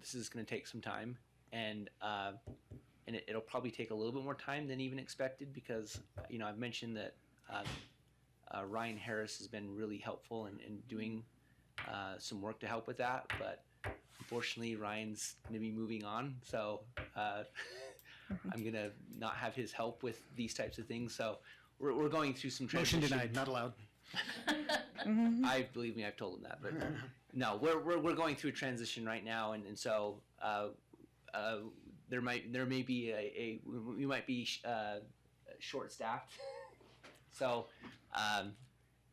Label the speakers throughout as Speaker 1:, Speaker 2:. Speaker 1: this is going to take some time, and uh, and it, it'll probably take a little bit more time than even expected because uh, you know I've mentioned that uh, uh, Ryan Harris has been really helpful in, in doing uh, some work to help with that, but unfortunately Ryan's going to be moving on, so uh, I'm going to not have his help with these types of things. So we're, we're going through some
Speaker 2: Motion
Speaker 1: transition.
Speaker 2: denied, not allowed.
Speaker 1: I believe me, I've told him that, but no, we're, we're, we're going through a transition right now, and, and so uh, uh, there might there may be a, a we might be uh, short staffed. so, um,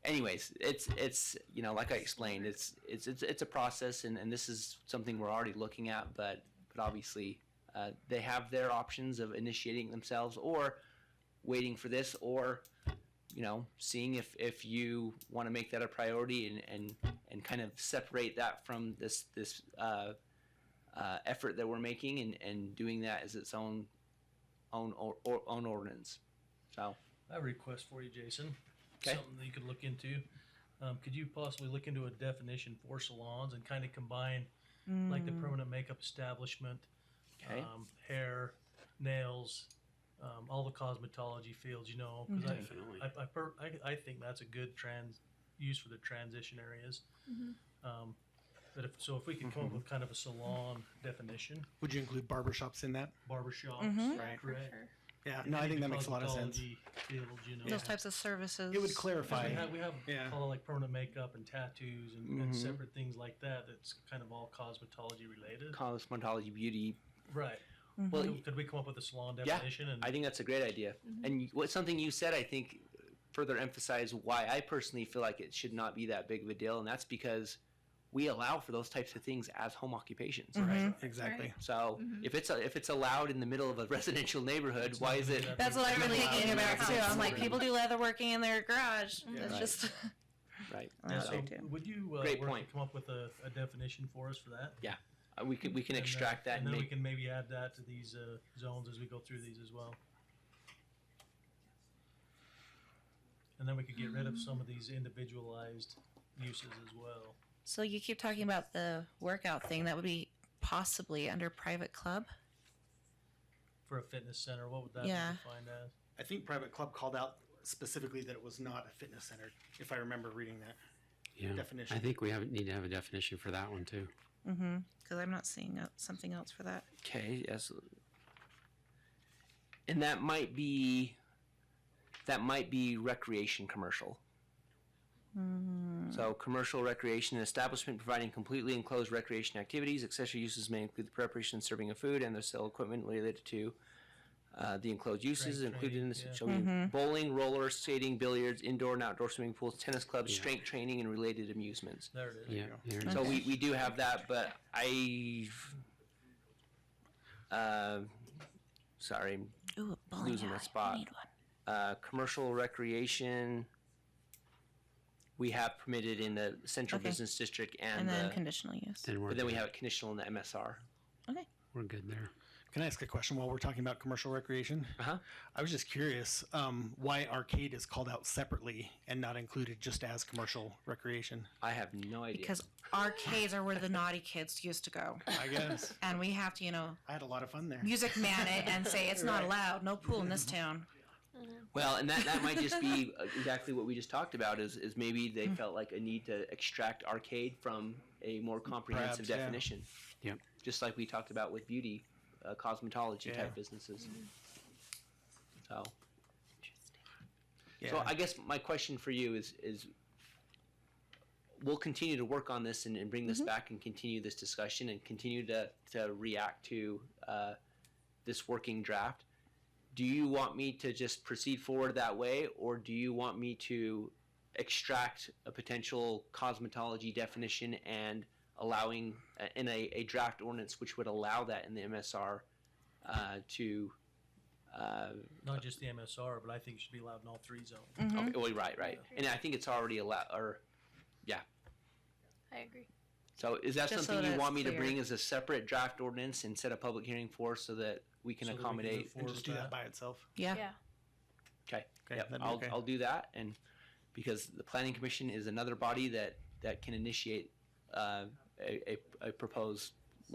Speaker 1: anyways, it's it's you know like I explained, it's it's it's, it's a process, and, and this is something we're already looking at, but but obviously. Uh, they have their options of initiating themselves or waiting for this or you know, seeing if, if you want to make that a priority and, and, and kind of separate that from this, this, uh, uh, effort that we're making and, and doing that as its own, own, or, or, own ordinance. So,
Speaker 3: I have a request for you, Jason.
Speaker 1: Okay.
Speaker 3: Something that you could look into. Um, could you possibly look into a definition for salons and kind of combine like
Speaker 4: Mm.
Speaker 3: the permanent makeup establishment,
Speaker 1: okay.
Speaker 3: um, hair, nails, um, all the cosmetology fields, you know? 'cause I-
Speaker 2: Definitely.
Speaker 3: I, I, per, I, I think that's a good trans use for the transition areas.
Speaker 4: Mm-hmm.
Speaker 3: Um, but if, so if we can come
Speaker 2: Mm-hmm.
Speaker 3: up with kind of a salon definition,
Speaker 2: Would you include barbershops in that?
Speaker 3: barbershops,
Speaker 4: Mm-hmm.
Speaker 2: Right.
Speaker 5: For
Speaker 3: correct?
Speaker 5: sure.
Speaker 2: Yeah, no, I think that makes a lot of sense.
Speaker 3: Cosmetology Fields, you know?
Speaker 2: Yeah.
Speaker 4: Those types of services.
Speaker 2: It would
Speaker 3: Because we
Speaker 2: clarify.
Speaker 3: have, we have
Speaker 2: Yeah.
Speaker 3: all like permanent makeup and tattoos and,
Speaker 1: Mhm.
Speaker 3: and separate things like that. That's kind of all cosmetology related,
Speaker 1: cosmetology, beauty.
Speaker 3: right?
Speaker 1: Well,
Speaker 3: Could- Could we come up with a salon
Speaker 1: Yeah,
Speaker 3: definition? and
Speaker 1: I think that's a great idea. And you- what something you said, I think, further emphasized why I personally feel like it should not be that big of a deal. And that's because we allow for those types of things as home occupations.
Speaker 4: Mm-hmm.
Speaker 3: Mm-hmm.
Speaker 2: Right, exactly.
Speaker 1: So if it's if it's allowed in the middle of a residential neighborhood, why is it?
Speaker 4: That's what I've been
Speaker 3: Allowed
Speaker 4: thinking
Speaker 3: in
Speaker 4: about
Speaker 3: their
Speaker 4: too.
Speaker 3: house.
Speaker 4: I'm like, people do leather working in their garage. It's
Speaker 1: Right.
Speaker 4: just.
Speaker 1: Right.
Speaker 3: And
Speaker 4: That's
Speaker 3: so
Speaker 4: what they do.
Speaker 3: would you uh,
Speaker 1: Great
Speaker 3: work to
Speaker 1: point.
Speaker 3: come up with a, a definition for us for that?
Speaker 1: Uh, We can we can
Speaker 3: And, uh,
Speaker 1: extract that and
Speaker 3: and then we
Speaker 1: make.
Speaker 3: can maybe add that to these uh, zones as we go through these as well. And then we could get rid of some of these individualized uses as well.
Speaker 4: So you keep talking about the workout thing. That would be possibly under private club.
Speaker 3: For a fitness center, what would that
Speaker 4: Yeah.
Speaker 3: be defined as?
Speaker 2: I think Private Club called out specifically that it was not a fitness center, if I remember reading that.
Speaker 6: Yeah.
Speaker 2: Definition.
Speaker 6: I think we have, need to have a definition for that one too.
Speaker 4: Because I'm not seeing uh, something else for that.
Speaker 1: Okay. Yes. And that might be, that might be recreation commercial.
Speaker 3: Hmm.
Speaker 1: So commercial recreation an establishment providing completely enclosed recreation activities. Accessory uses may include the preparation and serving of food and the sale of equipment related to uh, the enclosed uses
Speaker 3: Strength
Speaker 1: included in
Speaker 3: training,
Speaker 1: this
Speaker 3: yeah.
Speaker 1: shall be bowling, roller skating, billiards, indoor and outdoor swimming pools, tennis clubs, strength training, and related amusements.
Speaker 3: There it is.
Speaker 6: Yeah. there it is.
Speaker 1: So we, we do have that, but I, uh, sorry, I'm
Speaker 4: Ooh, a bowling
Speaker 1: Losing my
Speaker 4: alley.
Speaker 1: spot.
Speaker 4: I need one.
Speaker 1: uh, commercial recreation. We have permitted in the central
Speaker 4: Okay.
Speaker 1: business district
Speaker 4: And
Speaker 1: and,
Speaker 4: then
Speaker 1: the,
Speaker 4: conditional use.
Speaker 6: Then we're,
Speaker 1: but then we
Speaker 6: good.
Speaker 1: have it conditional in the MSR.
Speaker 4: Okay.
Speaker 6: we're good there.
Speaker 2: Can I ask a question while we're talking about commercial recreation?
Speaker 1: Uh-huh.
Speaker 2: I was just curious um, why arcade is called out separately and not included just as commercial recreation.
Speaker 1: I have no idea.
Speaker 4: Because arcades are where the naughty kids used to go,
Speaker 2: I guess
Speaker 4: and we have to, you know,
Speaker 2: I had a lot of fun there.
Speaker 4: music man it and say it's not
Speaker 2: Right.
Speaker 4: allowed. No pool in this town.
Speaker 1: well, and that, that might just be e, exactly what we just talked about is, is maybe they
Speaker 2: Hmm.
Speaker 1: felt like a need to extract arcade from a more comprehensive
Speaker 2: Mm, Perhaps, yeah.
Speaker 1: definition.
Speaker 6: Yep.
Speaker 1: just like we talked about with beauty, uh, cosmetology
Speaker 2: Yeah. Mm-hmm.
Speaker 1: type businesses. So,
Speaker 2: Yeah.
Speaker 1: so I guess my question for you is is we'll continue to work on this and, and bring this back and continue this discussion and continue to to react to uh, this working draft. Do you want me to just proceed forward that way, or do you want me to extract a potential cosmetology definition and allowing uh, in a, a draft ordinance which would allow that in the MSR uh, to uh,
Speaker 3: Not just the MSR, but I think it should be allowed in all three zones.
Speaker 1: okay, well, right right and I think it's already allowed or
Speaker 5: I agree.
Speaker 1: so is that
Speaker 4: Just so
Speaker 1: something
Speaker 4: that
Speaker 1: you want me
Speaker 4: it's
Speaker 1: to
Speaker 4: clear.
Speaker 1: bring as a separate draft ordinance and set a public hearing for so that we can
Speaker 3: So that we can
Speaker 1: accommodate
Speaker 3: move
Speaker 2: and just do that
Speaker 3: that.
Speaker 2: by itself.
Speaker 4: Yeah.
Speaker 5: Yeah.
Speaker 1: Okay. Yep.
Speaker 2: Okay, that'd be
Speaker 1: I'll,
Speaker 2: okay.
Speaker 1: I'll do that. And because the planning commission is another body that, that can initiate, uh, a, a, a proposed